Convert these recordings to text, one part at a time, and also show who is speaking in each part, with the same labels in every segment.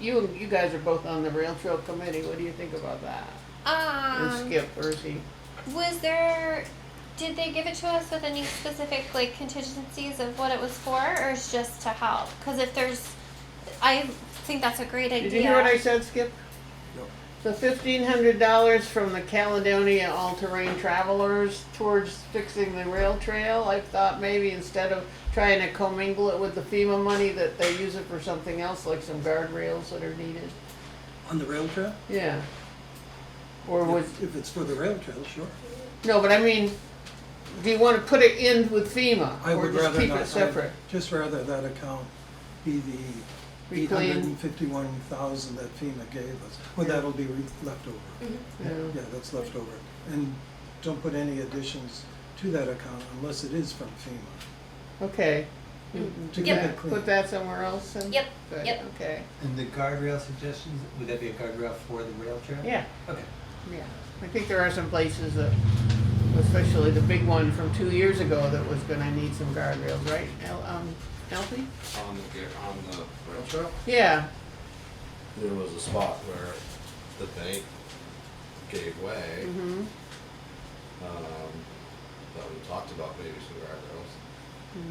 Speaker 1: You, you guys are both on the rail trail committee, what do you think about that? Or
Speaker 2: Um,
Speaker 1: Skip, or is he,
Speaker 2: was there? Did they give it to us with any specific like contingencies of what it was for, or is just to help? Because if there's, I think that's a great idea.
Speaker 1: did you hear what I said, Skip?
Speaker 3: No.
Speaker 1: The fifteen hundred dollars from the Caledonia All-Terrain Travelers towards fixing the rail trail, I thought maybe instead of trying to commingle it with the FEMA money, that they use it for something else, like some guardrails that are needed,
Speaker 3: On the rail trail?
Speaker 1: yeah. Or was,
Speaker 3: If if it's for the rail trail, sure.
Speaker 1: No, but I mean, do you want to put it in with FEMA
Speaker 3: I
Speaker 1: or
Speaker 3: would
Speaker 1: just
Speaker 3: rather
Speaker 1: keep
Speaker 3: not-
Speaker 1: it
Speaker 3: I'd
Speaker 1: separate?
Speaker 3: Just rather that account be the eight hundred
Speaker 1: Reclaim.
Speaker 3: and fifty-one thousand that FEMA gave us, well,
Speaker 1: Yeah. Mm-hmm.
Speaker 3: that'll be re- left over.
Speaker 1: Yeah.
Speaker 3: Yeah, that's left over. And don't put any additions to that account unless it is from FEMA,
Speaker 1: Okay.
Speaker 3: to keep
Speaker 2: Mm-hmm. Yep.
Speaker 3: it clean.
Speaker 1: Put that somewhere else and?
Speaker 2: Yep,
Speaker 1: Good,
Speaker 2: yep.
Speaker 1: Okay,
Speaker 4: And the guardrail suggestions, would that be a guardrail for the rail trail?
Speaker 1: yeah,
Speaker 4: Okay.
Speaker 1: yeah. I think there are some places that, especially the big one from two years ago that was gonna need some guardrails, right? El, um, Alfie?
Speaker 5: On the, gar- on the rail trail?
Speaker 1: Yeah,
Speaker 5: There was a spot where the bank gave way,
Speaker 1: mm-hmm,
Speaker 5: um, that we talked about maybe some guardrails.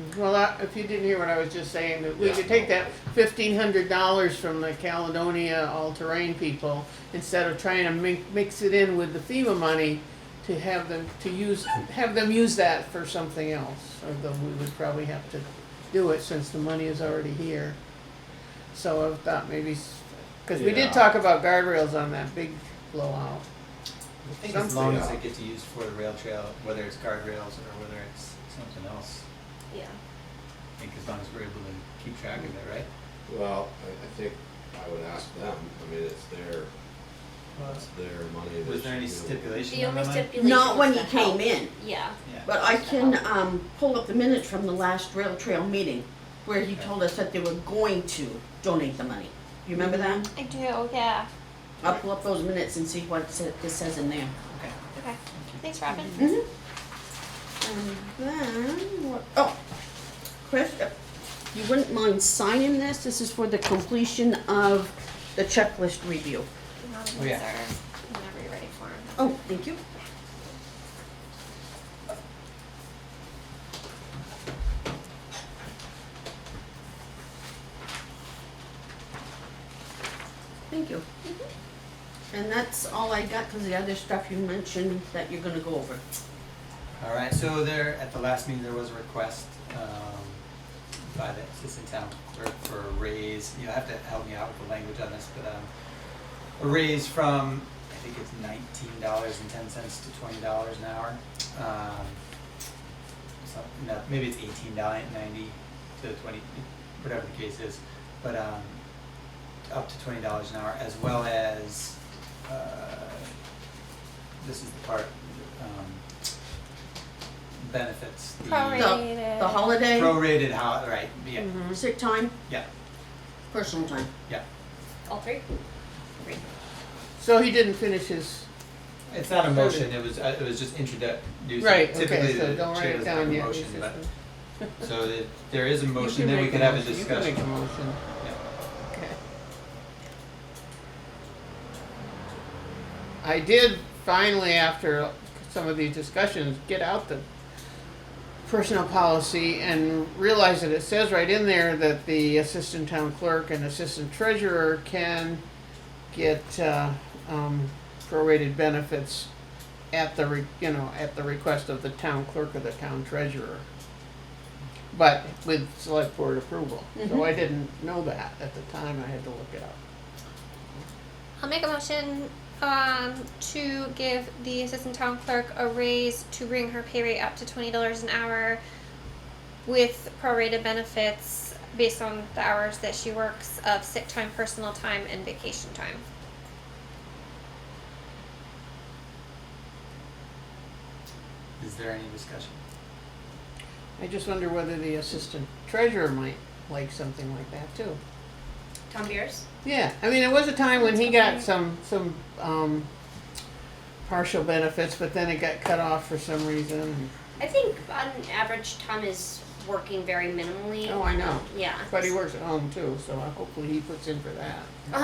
Speaker 1: Mm-hmm. well, I- if you didn't hear what I was just saying, that we
Speaker 5: Yeah.
Speaker 1: could take that fifteen hundred dollars from the Caledonia all-terrain people, instead of trying to mi- mix it in with the FEMA money, to have them, to use, have them use that for something else, although we would probably have to do it since the money is already here. So I thought maybe, because we
Speaker 5: Yeah.
Speaker 1: did talk about guardrails on that big blowout.
Speaker 4: I think as
Speaker 1: Something
Speaker 4: long as
Speaker 5: else.
Speaker 4: it gets used for the rail trail, whether it's guardrails or whether it's something else,
Speaker 2: Yeah.
Speaker 4: I think as long as we're able to keep track of it, right?
Speaker 5: Well, I, I think I would ask them, I mean, it's their, it's their money. they
Speaker 4: Was there any
Speaker 5: should be able-
Speaker 4: stipulation
Speaker 2: The
Speaker 4: on the
Speaker 2: only
Speaker 4: money?
Speaker 2: stipulation.
Speaker 6: Not when
Speaker 2: was
Speaker 6: he
Speaker 2: the help.
Speaker 6: came in,
Speaker 2: Yeah.
Speaker 4: Yeah.
Speaker 6: but I can, um, pull up the minutes from the last rail trail meeting where he told us that they were going to donate the money. You remember that?
Speaker 2: I do. Yeah. Mm-hmm.
Speaker 6: I'll pull up those minutes and see what it sa- it says in there.
Speaker 4: Okay.
Speaker 2: Okay. Thanks, Robin.
Speaker 1: Mm-hmm.
Speaker 6: And then, what, oh, Chris, if you wouldn't mind signing this? This is for the completion of the checklist review.
Speaker 2: Robin,
Speaker 4: Oh, yeah.
Speaker 2: these are- Whenever you're ready for 'em.
Speaker 6: Oh, thank you. Thank you. Mm-hmm. And that's all I got, cause the other stuff you mentioned that you're gonna go over.
Speaker 4: All right, so there, at the last meeting, there was a request um, by the assistant town clerk for a raise. You'll have to help me out with the language on this, but um, a raise from, I think it's nineteen dollars and ten cents to twenty dollars an hour. Um, so- no, maybe it's eighteen ninety to twenty, whatever the case is, but um, up to twenty dollars an hour, as well as, uh, this is the part, um, benefits. the
Speaker 2: Prorated.
Speaker 6: The holiday, Mm-hmm.
Speaker 4: Prorated, how, right, yeah,
Speaker 6: sick time,
Speaker 4: yeah,
Speaker 6: personal time.
Speaker 4: yeah.
Speaker 2: All three.
Speaker 1: So he didn't finish his,
Speaker 4: It's not a motion, it was, uh, it was just introduced.
Speaker 1: right,
Speaker 4: Typically,
Speaker 1: okay, so
Speaker 4: the
Speaker 1: don't write
Speaker 4: chair
Speaker 1: it
Speaker 4: doesn't have
Speaker 1: down
Speaker 4: a
Speaker 1: yet.
Speaker 4: motion,
Speaker 1: It's
Speaker 4: but-
Speaker 1: just
Speaker 4: So that there is a
Speaker 1: a- You
Speaker 4: motion,
Speaker 1: can
Speaker 4: then we
Speaker 1: make
Speaker 4: can
Speaker 1: a
Speaker 4: have a
Speaker 1: motion.
Speaker 4: discussion.
Speaker 1: You can make a motion,
Speaker 4: Yeah.
Speaker 1: okay. I did finally, after some of these discussions, get out the personnel policy and realize that it says right in there that the assistant town clerk and assistant treasurer can get, uh, um, prorated benefits at the, re- you know, at the request of the town clerk or the town treasurer. But with select board approval, so I didn't know that at the time, I had to look it up.
Speaker 2: I'll make a motion um, to give the assistant town clerk a raise to bring her pay rate up to twenty dollars an hour with prorated benefits based on the hours that she works of sick time, personal time, and vacation time.
Speaker 4: Is there any discussion?
Speaker 1: I just wonder whether the assistant treasurer might like something like that too.
Speaker 2: Tom Beers?
Speaker 1: Yeah, I mean, there was a time when he got some, some, um, partial benefits, but then it got cut off for some reason.
Speaker 7: I think on average, Tom is working very minimally.
Speaker 1: Oh, I know,
Speaker 7: Yeah.
Speaker 1: but he works at home too, so hopefully he puts in for that.